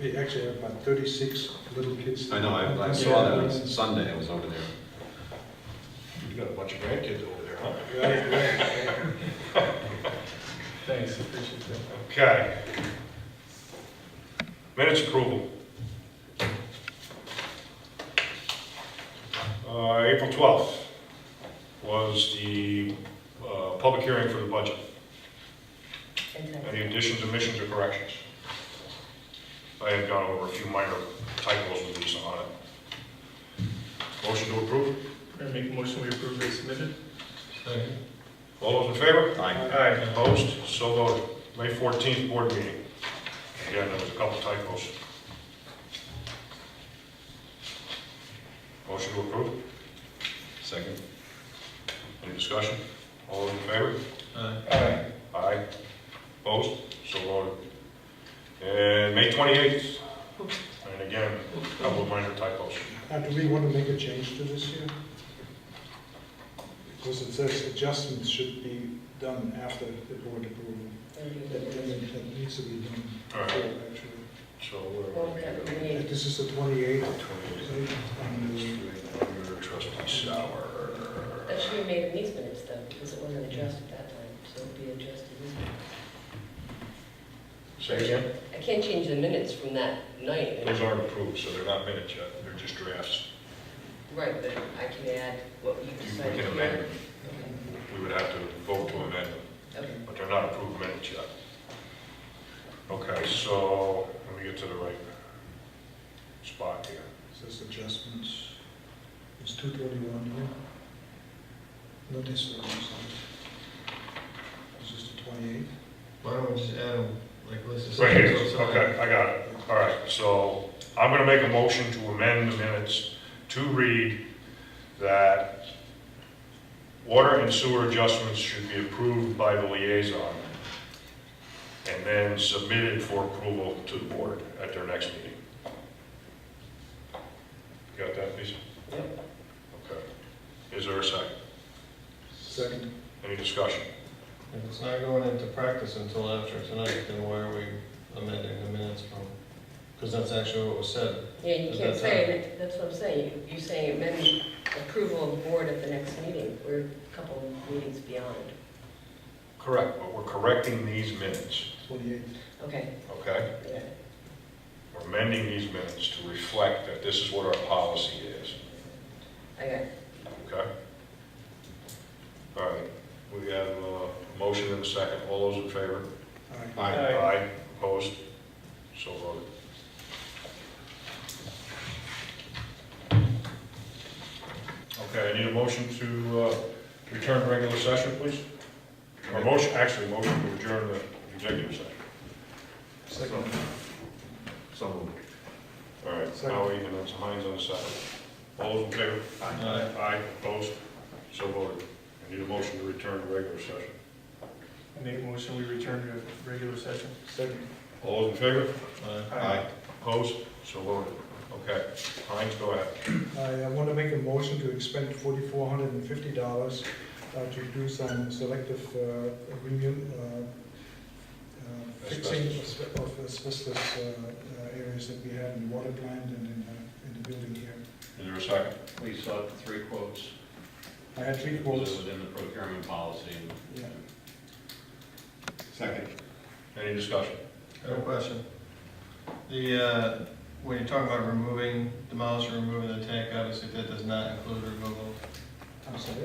They actually have about thirty-six little kids. I know, I, I saw that on Sunday, I was over there. You got a bunch of grandkids over there, huh? Right, right, right. Thanks, appreciate that. Okay. Minutes approval. Uh, April 12th was the uh, public hearing for the budget. Any additions, omissions, or corrections? I had gone over a few minor typos with Lisa on it. Motion to approve? Can I make a motion, we approve as submitted? All those in favor? Aye. Aye. Opposed? So voted. May 14th, board meeting. Again, there was a couple typos. Motion to approve. Second? Any discussion? All those in favor? Aye. Opposed? So voted. And May 28th. And again, a couple of minor typos. Now, Uh, do we want to make a change to this here? Because it says adjustments should be done after the board approval. That, that that needs to be done All before, right, actually. so where are we going? Like, This is the twenty-eighth. 28th. And Under trustee Sauer. That should be made in these minutes though, because it wasn't adjusted that time, so it'll be adjusted this time. Say again? I can't change the minutes from that night. Those aren't approved, so they're not minutes yet, they're just drafts. Right, but I can add what you We decided. can to amend them, add. we would have to vote to amend them, Okay, okay. but they're not approved minutes yet. Okay, so, let me get to the right spot here. it says adjustments. It's two twenty-one here. Not this one, I'm sorry. This is the twenty-eighth. Why don't we just add them, like, let's just. Right here, okay, I got it, all right, so I'm gonna make a motion to amend the minutes to read that water and sewer adjustments should be approved by the liaison and then submitted for approval to the board at their next meeting. Got that, Lisa? Yep. Okay. Is there a second? Second. Any discussion? If it's not going into practice until after tonight, then why are we amending the minutes from? Because that's actually what was said. Yeah, you Is can't that say, it. that's what I'm saying, you're saying amend approval of board at the next meeting, we're a couple of meetings beyond. Correct. But we're correcting these minutes, Twenty-eighth. Okay, okay? yeah, We're amending these minutes to reflect that this is what our policy is, I got it. okay? All right, we have uh, a motion and a second, all those in favor? All right. Aye. Aye, opposed, so voted. Okay, I need a motion to uh, return to regular session, please? Or motion, actually, motion to adjourn the executive session. Second. So moved. All right, now we can, it's Heinz on the side. All those in favor? Aye. Aye, opposed, so voted. I need a motion to return to regular session. I make a motion, we return to regular session. Second. All those in favor? Aye. Aye. Opposed, so voted. Okay, Heinz, go ahead. I want to make a motion to expend forty-four hundred and fifty dollars uh, to do some selective uh, review, uh, uh, fixing of asbe- of asbestos uh, uh, areas that we have in the water plant and in, uh, in the building here. Is there a second? We sought three quotes. I had three Those quotes. Within the procurement policy. Yeah. Second. Any discussion? I have a question. The, uh, when you're talking about removing, demolishing, removing the tank, obviously that does not include removal. I'm sorry.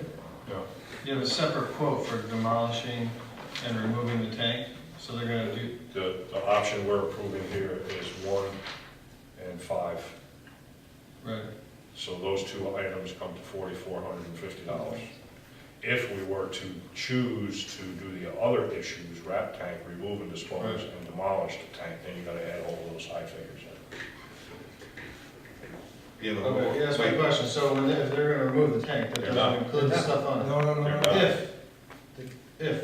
No. You have a separate quote for demolishing and removing the tank, so they're gonna do, The, the option we're approving here is one and five. right, So those two items come to forty-four hundred and fifty dollars. If we were to choose to do the other issues, wrap tank, remove and dispose, and demolish the tank, then you gotta add all those high figures in. Yeah, but Okay, yeah, that's my question, so when, they- if they're gonna remove the tank, that They're not. doesn't include the stuff on No, no, no, no. it? They're If, if,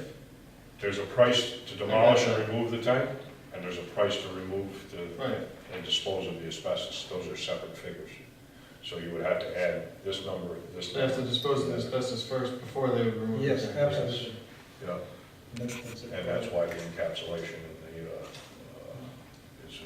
There's a price to demolish and remove the tank, and there's a price to remove the, right, and dispose of the asbestos, those are separate figures. So you would have to add this number, this they have to number, dispose of the asbestos first before they would remove the tank. Yes, absolutely. yeah, And that's- that's it. and that's why the uh, encapsulation